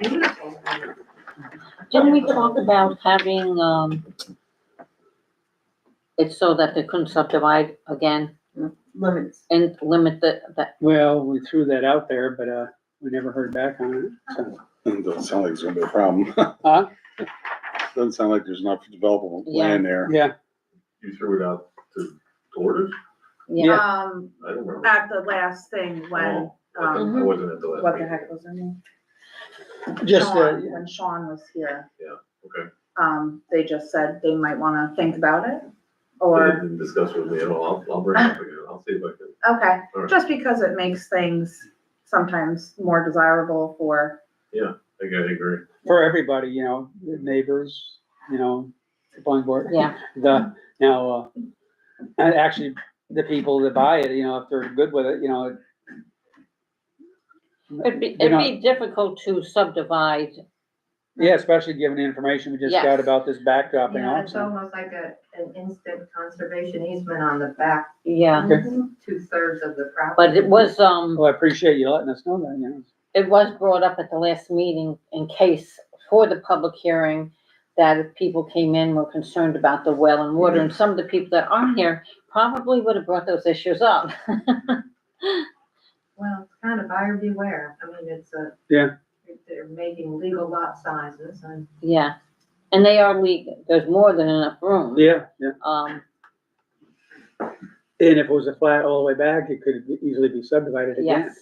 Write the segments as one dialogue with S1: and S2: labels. S1: Beautiful.
S2: Didn't we talk about having, um, it's so that they couldn't subdivide again
S1: Limits.
S2: and limit the, that,
S3: Well, we threw that out there, but, uh, we never heard back on it, so.
S4: Doesn't sound like it's gonna be a problem.
S3: Huh?
S4: Doesn't sound like there's enough developable land there.
S3: Yeah,
S5: You threw it out to orders?
S2: yeah,
S6: Um,
S5: I don't remember.
S6: at the last thing when,
S5: Oh, I
S6: um,
S5: I wasn't at the last
S1: What the
S5: meeting.
S1: heck was her name?
S3: just, uh,
S6: Sean, when Sean was here.
S5: Yeah, okay.
S6: Um, they just said they might wanna think about it,
S5: They
S6: or,
S5: didn't discuss with me at all. I'll, I'll bring it up again. I'll see if I can.
S6: okay,
S5: All right.
S6: just because it makes things sometimes more desirable for,
S5: I think I agree.
S3: for everybody, you know, the neighbors, you know, the planning board.
S2: yeah,
S3: The, now, uh, and actually, the people that buy it, you know, if they're good with it, you know.
S2: it'd be,
S3: They're
S2: it'd
S3: not-
S2: be difficult to subdivide,
S3: Yeah, especially given the information we just
S2: Yes.
S3: got about this backdrop and
S1: Yeah,
S3: all,
S1: it's
S3: so.
S1: almost like a, an instant conservation easement on the back
S2: yeah.
S7: Mm-hmm.
S1: two thirds of the property.
S2: But it was, um,
S3: Well, I appreciate you letting us know that, you know.
S2: it was brought up at the last meeting in case for the public hearing that if people came in were concerned about the well and water, and some of the people that are here probably would have brought those issues up.
S1: Well, it's kind of buyer beware. I mean, it's a.
S3: Yeah.
S1: They're making legal lot sizes and.
S2: Yeah, and they are legal, there's more than enough room.
S3: Yeah, yeah.
S2: Um,
S3: And if it was a flat all the way back, it could easily be subdivided again.
S2: yes,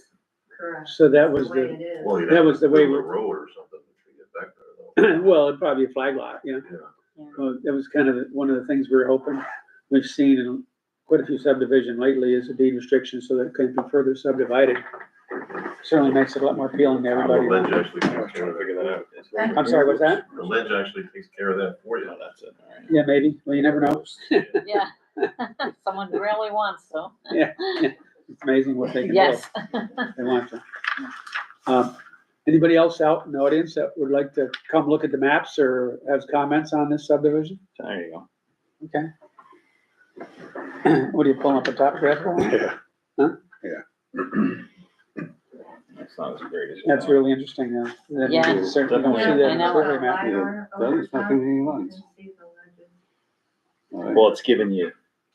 S1: Correct.
S3: So that
S1: The
S3: was
S1: way
S3: the,
S1: it is.
S5: Well, you'd
S3: That
S5: have
S3: was
S5: to
S3: the way
S5: do a
S3: we-
S5: Road or something to get back there though.
S3: well, it'd probably be a flag lot, you know.
S5: Yeah.
S3: Well, that was kind of one of the things we were hoping, we've seen in quite a few subdivision lately is a deed restriction so that it couldn't be further subdivided. Certainly makes it a lot more appealing to
S5: The
S3: everybody.
S5: ledge actually takes care of that.
S3: I'm sorry, what's that?
S5: The ledge actually takes care of that for you. That's it.
S3: Yeah, maybe, well, you never know,
S2: yeah. Someone really wants to,
S3: it's amazing what they can do.
S2: yes.
S3: if They want to. Um, Anybody else out in the audience that would like to come look at the maps or have comments on this subdivision?
S8: There you go.
S3: Okay. What are you pulling up a top graph? for?
S4: Yeah.
S8: That's not as great as. you
S3: That's
S8: thought.
S3: really interesting, uh, that you
S2: Yeah.
S3: certainly don't see that
S2: I
S3: in
S2: know.
S3: the survey map.
S1: LiDAR
S4: Yeah, that is
S1: over
S4: fucking
S1: top, you
S4: eighty
S1: can
S4: lines.
S1: see the legend.
S4: Well,
S8: Well, it's giving you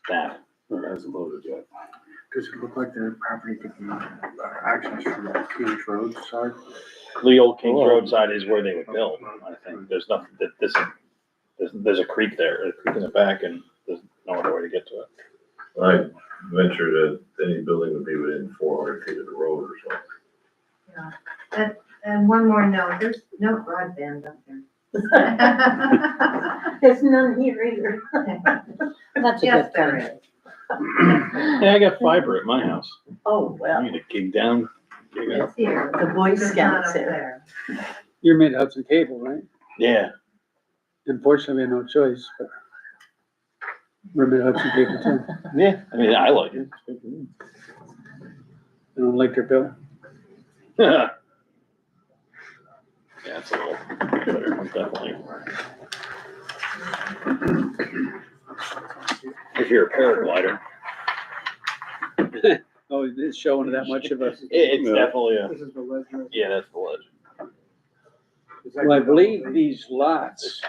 S8: that.
S4: it hasn't loaded yet.
S9: Does it look like the property could be accessed from the King's Road side?
S8: The old King
S4: Well-
S8: roadside is where they would build, I think. There's nothing, that this, there's, there's a creek there, a creek in the back and there's no other way to get to it.
S5: I venture that any building would be within four hundred feet of the road or something.
S1: And one more note, there's no broadband up there.
S7: There's none here either.
S2: That's a
S1: Yes,
S2: good
S1: there
S2: thing.
S1: is.
S8: Yeah, I got fiber at my house.
S7: Oh,
S8: I
S7: well,
S8: need to dig down. dig up.
S1: It's here.
S7: the Boy
S1: It's not
S7: Scouts
S1: up
S7: there.
S1: there.
S3: You're mid Hudson Cable, right?
S8: Yeah,
S3: Unfortunately, we had no choice, but we're mid Hudson Cable too.
S8: yeah. I mean, I like it.
S3: I don't like their bill.
S8: Yeah, it's a little better, definitely. If you're a paraglider,
S3: Oh, it's showing that much of us.
S8: it, it's
S4: Yeah.
S8: definitely a,
S9: This is the ledger.
S8: yeah, that's the ledge.
S3: Well, I believe these lots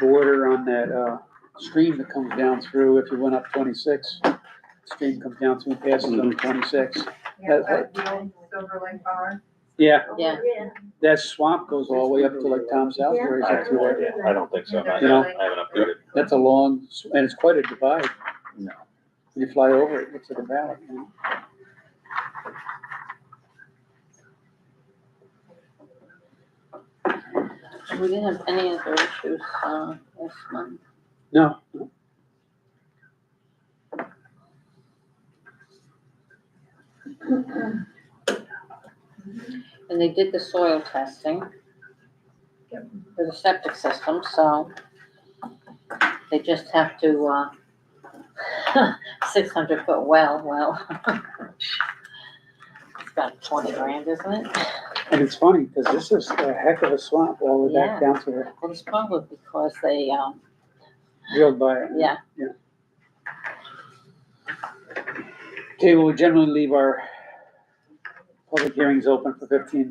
S3: border on that, uh, stream that comes down through, if you went up twenty-six, stream comes down through, and passes on twenty-six.
S1: Yeah,
S3: That's
S1: up the old Silver Lake Bar.
S3: Yeah,
S2: Yeah.
S7: yeah.
S3: that swamp goes all the way up to like Tom Southbury's
S8: I
S3: up
S8: have
S3: through
S8: no
S3: there.
S8: idea. I don't think so. I
S1: You
S3: know?
S8: haven't I haven't updated.
S3: That's a long, s- and it's quite a divide.
S8: No.
S3: When you fly over it, it's a valley. you know?
S2: We didn't have any other issues, uh, this month.
S3: No,
S2: And they did the soil testing.
S1: Yep.
S2: For the septic system, so they just have to, uh, six hundred foot well, well. It's about twenty grand, isn't it?
S3: and it's funny, because this is a heck of a swamp all the way
S2: Yeah.
S3: back down through there,
S2: Well, it's probably because they, um,
S3: drilled by it.
S2: yeah,
S3: Okay, well, we generally leave our public hearings open for fifteen minutes.